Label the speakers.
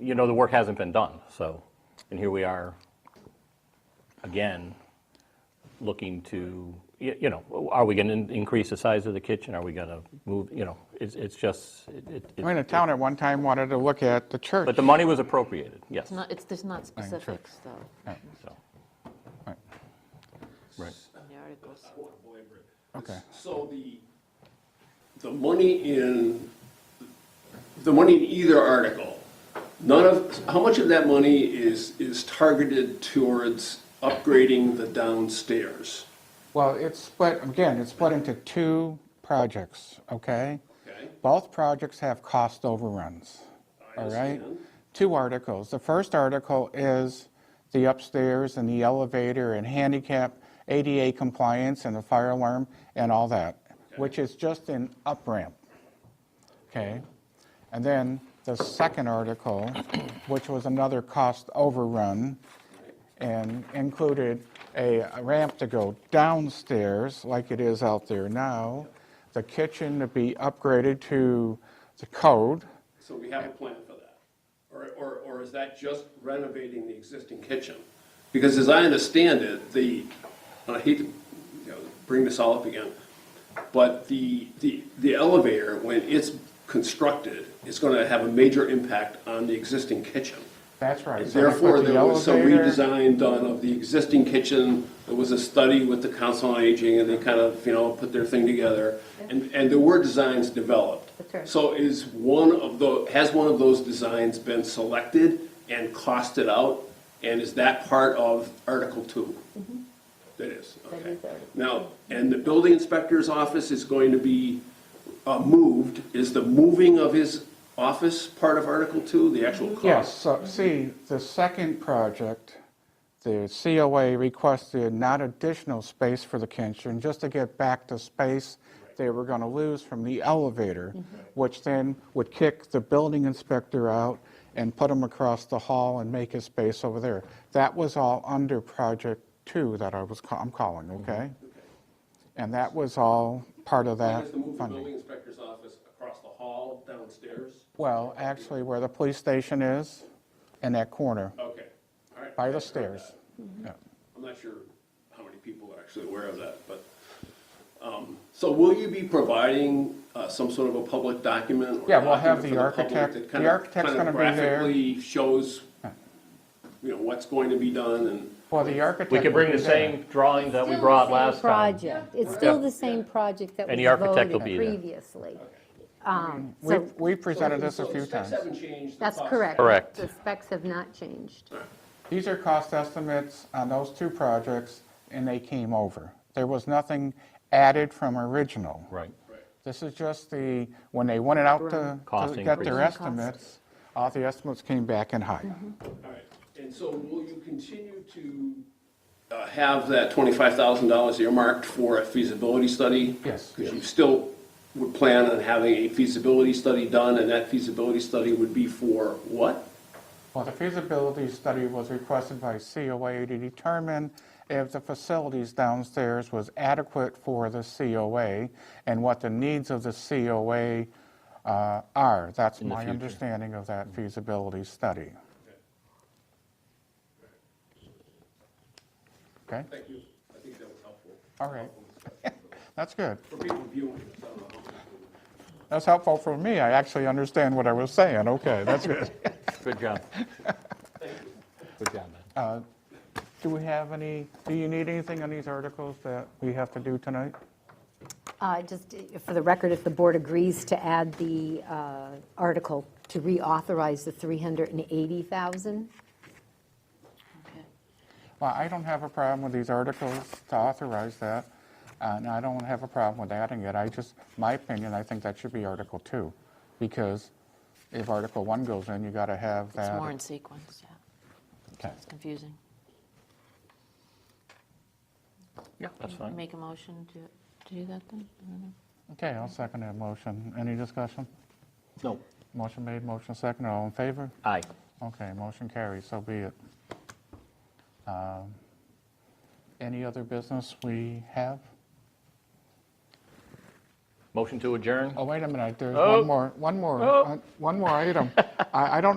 Speaker 1: you know, the work hasn't been done, so, and here we are, again, looking to, y- you know, are we going to increase the size of the kitchen? Are we going to move, you know, it's, it's just, it- it. it-
Speaker 2: I mean, the town at one time wanted to look at the church.
Speaker 1: But the money was appropriated, yes,
Speaker 3: It's not, it's, there's not
Speaker 2: sure.
Speaker 3: specifics,
Speaker 1: so,
Speaker 3: though,
Speaker 2: Right,
Speaker 1: right.
Speaker 3: in the articles.
Speaker 4: I want to belabor it.
Speaker 2: Okay.
Speaker 4: So the, the money in, the money in either article, none of, how much of that money is, is targeted towards upgrading the downstairs?
Speaker 2: Well, it's split, again, it's split into two projects, okay?
Speaker 4: Okay.
Speaker 2: Both projects have cost overruns,
Speaker 4: I
Speaker 2: all right?
Speaker 4: understand.
Speaker 2: Two articles. The first article is the upstairs and the elevator and handicap, ADA compliance and the fire alarm and all that, which is just an up ramp, okay? And then the second article, which was another cost overrun, and included a ramp to go downstairs like it is out there now, the kitchen to be upgraded to the code.
Speaker 4: So we have a plan for that? Or, or, or is that just renovating the existing kitchen? Because as I understand it, the, and I hate to, you know, bring this all up again, but the, the, the elevator, when it's constructed, is gonna have a major impact on the existing kitchen.
Speaker 2: That's right. so they put
Speaker 4: Therefore,
Speaker 2: the
Speaker 4: there was some
Speaker 2: elevator-
Speaker 4: redesign done of the existing kitchen. There was a study with the Council on Aging, and they kind of, you know, put their thing together. And, and there were designs developed.
Speaker 3: That's right.
Speaker 4: So is one of the, has one of those designs been selected and costed out? And is that part of Article Two?
Speaker 2: Mm-hmm.
Speaker 4: That is,
Speaker 3: That
Speaker 4: okay.
Speaker 3: is Article
Speaker 4: Now, and the building inspector's office is going to be uh, moved. Is the moving of his office part of Article Two, the actual cost?
Speaker 2: Yes, so, see, the second project, the COA requested not additional space for the kitchen, just to get back to space they were gonna lose from the elevator,
Speaker 4: Mm-hmm.
Speaker 2: which then would kick the building inspector out and put him across the hall and make his space over there. That was all under Project Two that I was, ca- I'm calling,
Speaker 4: Mm-hmm.
Speaker 2: okay? And that was all part of
Speaker 4: Why
Speaker 2: that
Speaker 4: does the move the
Speaker 2: funding.
Speaker 4: building inspector's office across the hall downstairs?
Speaker 2: Well, actually, where the police station is, in that corner.
Speaker 4: Okay, all right.
Speaker 2: By
Speaker 4: I
Speaker 2: the
Speaker 4: heard
Speaker 2: stairs.
Speaker 4: that.
Speaker 2: Yeah.
Speaker 4: I'm not sure how many people are actually aware of that, but, um, so will you be providing uh, some sort of a public document? or
Speaker 2: Yeah, we'll have
Speaker 4: document
Speaker 2: the
Speaker 4: for public
Speaker 2: architect-
Speaker 4: that
Speaker 2: the
Speaker 4: kind of-
Speaker 2: architect's
Speaker 4: kind of
Speaker 2: gonna be there.
Speaker 4: Graphically shows, you know, what's going to be done and.
Speaker 2: Well, the architect.
Speaker 1: We could bring the
Speaker 2: will be there.
Speaker 1: same drawings that we
Speaker 5: Still the
Speaker 1: brought
Speaker 5: same
Speaker 1: last time.
Speaker 5: Project, it's still the same project that
Speaker 1: And
Speaker 5: was
Speaker 1: the architect will
Speaker 5: voted
Speaker 1: be there.
Speaker 5: previously. Um,
Speaker 2: We,
Speaker 5: So,
Speaker 2: we presented this
Speaker 4: So
Speaker 2: a
Speaker 4: the
Speaker 2: few
Speaker 4: specs
Speaker 2: times.
Speaker 4: haven't changed, the
Speaker 5: that's
Speaker 4: costs
Speaker 5: correct.
Speaker 1: Correct.
Speaker 5: The specs have not changed.
Speaker 2: These are cost estimates on those two projects, and they came over. There was nothing added from original.
Speaker 1: Right.
Speaker 2: This is just the, when they went out to-
Speaker 1: Cost
Speaker 2: to get their
Speaker 1: increase.
Speaker 3: Cost.
Speaker 2: estimates, all the estimates came back in high.
Speaker 4: All right, and so will you continue to uh, have that $25,000 earmarked for a feasibility study?
Speaker 2: Yes.
Speaker 4: Because you still would plan on having a feasibility study done, and that feasibility study would be for what?
Speaker 2: Well, the feasibility study was requested by COA to determine if the facilities downstairs was adequate for the COA and what the needs of the COA uh, are. That's my understanding of that
Speaker 4: Mm-hmm.
Speaker 2: feasibility study. Okay,
Speaker 4: Thank you. I think that was helpful
Speaker 2: all right. That's good.
Speaker 4: for people viewing. this, I don't know.
Speaker 2: That's helpful for me. I actually understand what I was saying. Okay, that's good.
Speaker 1: Good job. Good job, man.
Speaker 2: Do we have any, do you need anything on these articles that we have to do tonight?
Speaker 5: Uh, Just for the record, if the board agrees to add the uh, article to reauthorize the 380,000,
Speaker 3: Okay.
Speaker 1: uh,
Speaker 2: Well, I don't have a problem with these articles to authorize that, and I don't have a problem with adding it. I just, my opinion, I think that should be Article 2, because if Article 1 goes in, you got to have that.
Speaker 3: It's more in sequence, yeah.
Speaker 2: Okay.
Speaker 3: It's confusing.
Speaker 1: Yeah, that's fine.
Speaker 3: Make a motion to, to do that then? I don't know.
Speaker 2: Okay, I'll second that motion. Any discussion?
Speaker 1: No,
Speaker 2: Motion made, motion seconded, all in favor?
Speaker 1: aye.
Speaker 2: Okay, motion carries, so be it. Um, Any other business we have?
Speaker 1: Motion to adjourn?
Speaker 2: Oh, wait a minute, there's
Speaker 1: Oh.
Speaker 2: one more, one more,
Speaker 1: Oh.
Speaker 2: uh, one more item. I I don't know.